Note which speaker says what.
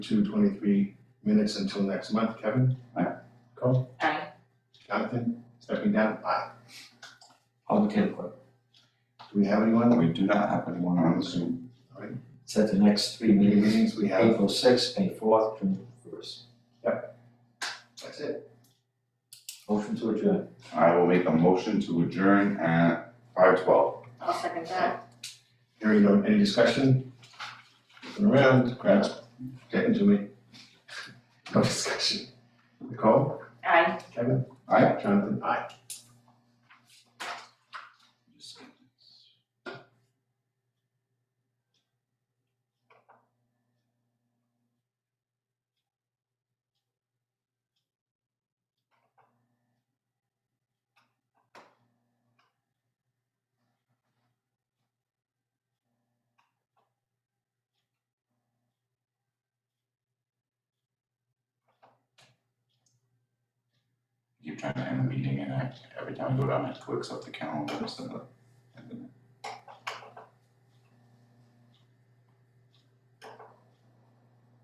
Speaker 1: two twenty-three minutes until next month. Kevin?
Speaker 2: Aye.
Speaker 1: Cole?
Speaker 3: Aye.
Speaker 1: Jonathan? Stepping down? Aye.
Speaker 4: Public input.
Speaker 1: Do we have anyone?
Speaker 2: We do not have anyone on Zoom.
Speaker 4: Set the next three
Speaker 1: Three
Speaker 4: meetings,
Speaker 1: meetings we have.
Speaker 4: April sixth, May fourth, June first.
Speaker 1: That's it.
Speaker 4: Motion to adjourn.
Speaker 2: I will make a motion to adjourn at five twelve.
Speaker 3: I'll second that.
Speaker 1: Hearing no, any discussion? Looking around, grabs, getting to me. No discussion. Nicole?
Speaker 3: Aye.
Speaker 1: Kevin?
Speaker 2: Aye.
Speaker 1: Jonathan? Aye.
Speaker 2: Keep trying to end the meeting and I, every time I go down, it clicks up the calendar instead of. ending it.